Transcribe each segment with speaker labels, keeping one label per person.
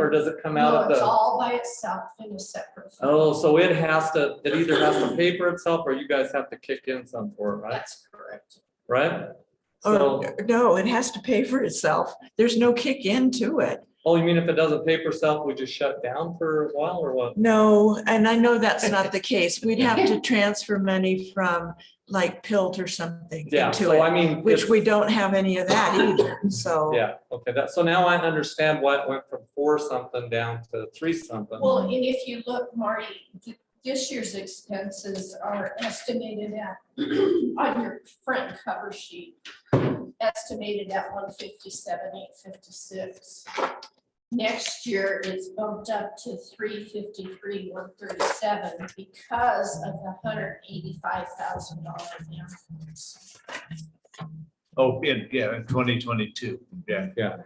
Speaker 1: or does it come out
Speaker 2: No,
Speaker 1: of
Speaker 2: it's
Speaker 1: the?
Speaker 2: all by itself in a separate. fund.
Speaker 1: Oh, so it has to, it either has to pay for itself or you guys have to kick in some for it, right?
Speaker 2: That's correct.
Speaker 1: Right?
Speaker 3: Oh,
Speaker 1: So,
Speaker 3: Or, no, it has to pay for itself. There's no kick into it.
Speaker 1: oh, you mean if it doesn't pay for itself, we just shut down for a while or what?
Speaker 3: No, and I know that's not the case. We'd have to transfer money from like Pilt or something
Speaker 1: Yeah,
Speaker 3: into
Speaker 1: so I
Speaker 3: it,
Speaker 1: mean.
Speaker 3: which
Speaker 1: it's-
Speaker 3: we don't have any of that either, so.
Speaker 1: Yeah, okay, that, so now I understand why it went from four something down to three something.
Speaker 2: Well, and if you look, Marty, th- this year's expenses are estimated at, on your front cover sheet, estimated at one fifty-seven, eight fifty-six. Next year, it's bumped up to three fifty-three, one thirty-seven because of the hundred eighty-five thousand dollar difference.
Speaker 4: Oh, in, yeah, in twenty twenty-two, yeah.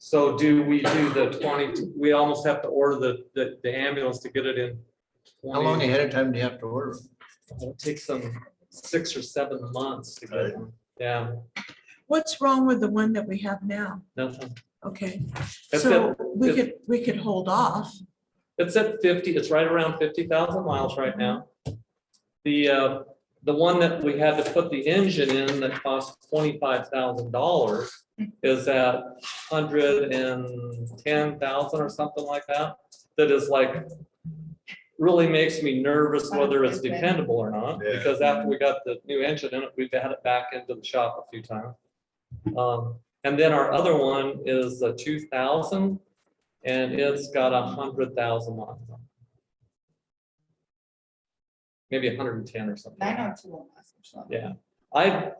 Speaker 1: So do we do the twenty, we almost have to order the, the, the ambulance to get it in.
Speaker 4: How
Speaker 1: 20
Speaker 4: long ahead of time do you have to order?
Speaker 1: It'll take some six or seven months to get,
Speaker 4: Right.
Speaker 1: one. yeah,
Speaker 3: What's wrong with the one that we have now?
Speaker 1: nothing.
Speaker 3: Okay,
Speaker 1: That's
Speaker 3: so
Speaker 1: it.
Speaker 3: we
Speaker 1: if-
Speaker 3: could, we could hold off.
Speaker 1: It's at fifty, it's right around fifty thousand miles right now. The, uh, the one that we had to put the engine in that cost twenty-five thousand dollars is at hundred and ten thousand or something like that. That is like, really makes me nervous whether it's dependable or not,
Speaker 4: Yeah.
Speaker 1: because after we got the new engine in it, we've had it back into the shop a few times. Um, and then our other one is a two thousand, and it's got a hundred thousand miles on it. Maybe hundred and ten or something.
Speaker 5: Nine oh two oh one.
Speaker 1: Yeah, I.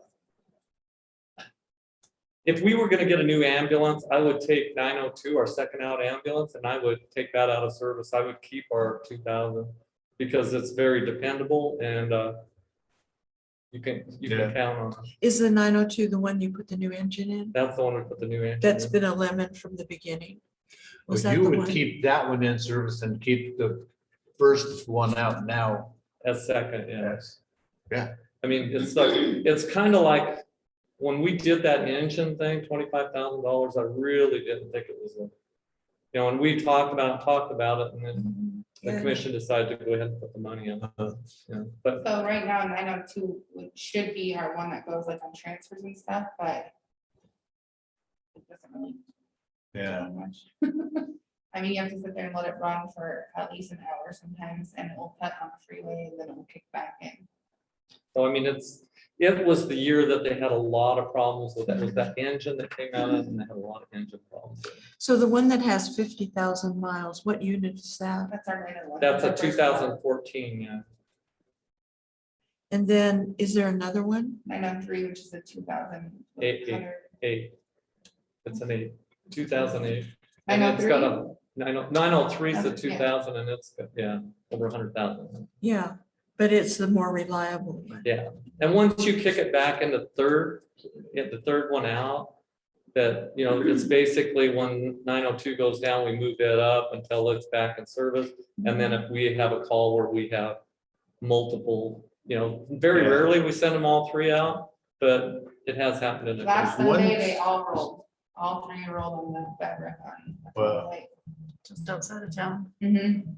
Speaker 1: If we were gonna get a new ambulance, I would take nine oh two, our second out ambulance, and I would take that out of service. I would keep our two thousand. Because it's very dependable and, uh. You can, you can
Speaker 4: Yeah.
Speaker 1: count on, it.
Speaker 3: Is the nine oh two the one you put the new engine in?
Speaker 1: that's the one we put the new engine
Speaker 3: That's
Speaker 1: in.
Speaker 3: been a lemon from the beginning. Was
Speaker 4: Well,
Speaker 3: that
Speaker 4: You
Speaker 3: the
Speaker 4: would
Speaker 3: one?
Speaker 4: keep that one in service and keep the first one out now.
Speaker 1: As second, yeah. I mean, it's like, it's kind of like, when we did that engine thing, twenty-five thousand dollars, I really didn't think it was. a- You know, and we talked about, talked about it, and then The
Speaker 3: Yeah.
Speaker 1: commission decided to go ahead and put the money in, yeah, but
Speaker 5: So right now, nine oh two should be our one that goes like on transfers and stuff, but. It doesn't really. do
Speaker 4: Yeah.
Speaker 5: much. I mean, you have to sit there and let it run for at least an hour sometimes and it will cut on the freeway and then it will kick back in.
Speaker 1: so I mean, it's, it was the year that they had a lot of problems with that, was that engine that came out and they had a lot of engine problems.
Speaker 3: So the one that has fifty thousand miles, what unit is that?
Speaker 5: That's our latest one.
Speaker 1: That's a
Speaker 5: Our
Speaker 1: two
Speaker 5: first one.
Speaker 1: thousand fourteen, uh, yeah,
Speaker 3: And then is there another one?
Speaker 5: 903, which is a two thousand.
Speaker 1: Eight, eight. eight. It's an eight, two thousand eight. And it's
Speaker 5: 903?
Speaker 1: got a nine oh, nine oh three is a
Speaker 5: That's- yeah.
Speaker 1: two thousand and it's, got- yeah, over a hundred thousand.
Speaker 3: Yeah, but it's the more reliable one.
Speaker 1: And once you kick it back in the third, get the third one out, that, you know, it's basically when nine oh two goes down, we move it up until it's back in service. And then if we have a call where we have multiple, you know, very
Speaker 4: Yeah.
Speaker 1: rarely we send them all three out, but it has happened in the
Speaker 5: Last
Speaker 1: past.
Speaker 4: One-
Speaker 5: Sunday, they all rolled, all three rolled on the bedrock
Speaker 4: Wow.
Speaker 5: on.
Speaker 3: Just outside of town.
Speaker 5: Mm-hmm.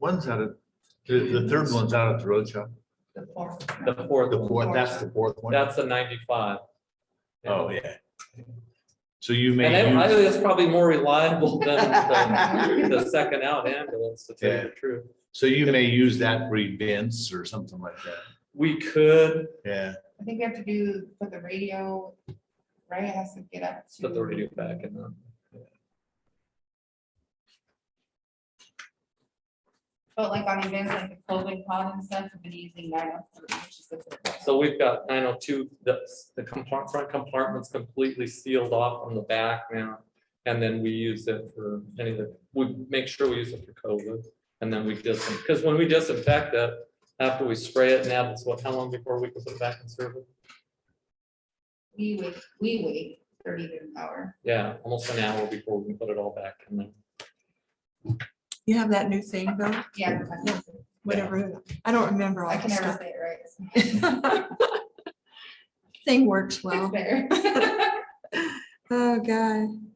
Speaker 4: One's out of, the, the third one's out at the road shop.
Speaker 5: The fourth.
Speaker 1: The fourth,
Speaker 4: The
Speaker 1: one.
Speaker 4: fourth, that's the fourth one.
Speaker 1: that's a ninety-five. Yeah.
Speaker 4: Oh, yeah. So you
Speaker 1: And
Speaker 4: may.
Speaker 1: I I
Speaker 4: use-
Speaker 1: think it's probably more reliable than, than the second out ambulance, to tell you the truth.
Speaker 4: So you may use that for events or something like that.
Speaker 1: We could
Speaker 4: Yeah.
Speaker 5: I think we have to do, put the radio, right, it has to get up to.
Speaker 1: put the radio back in them.
Speaker 5: But like on events like the clothing pod and stuff, we've been using nine oh three, which is the.
Speaker 1: So we've got nine oh two, the, the compart- front compartment's completely sealed off on the back now. And then we use it for any of the, we make sure we use it for COVID. And then we just, because when we disinfect it, after we spray it now, it's what, how long before we can put it back in service?
Speaker 5: We wait, we wait thirty to an hour.
Speaker 1: Yeah, almost an hour before we can put it all back in there.
Speaker 3: You have that new thing though,
Speaker 5: Yeah. I-
Speaker 3: whatever, I don't remember all
Speaker 5: I can
Speaker 3: that
Speaker 5: never
Speaker 3: stuff.
Speaker 5: say it right.
Speaker 3: Thing works
Speaker 5: It's
Speaker 3: well.
Speaker 5: there.
Speaker 3: Oh, God.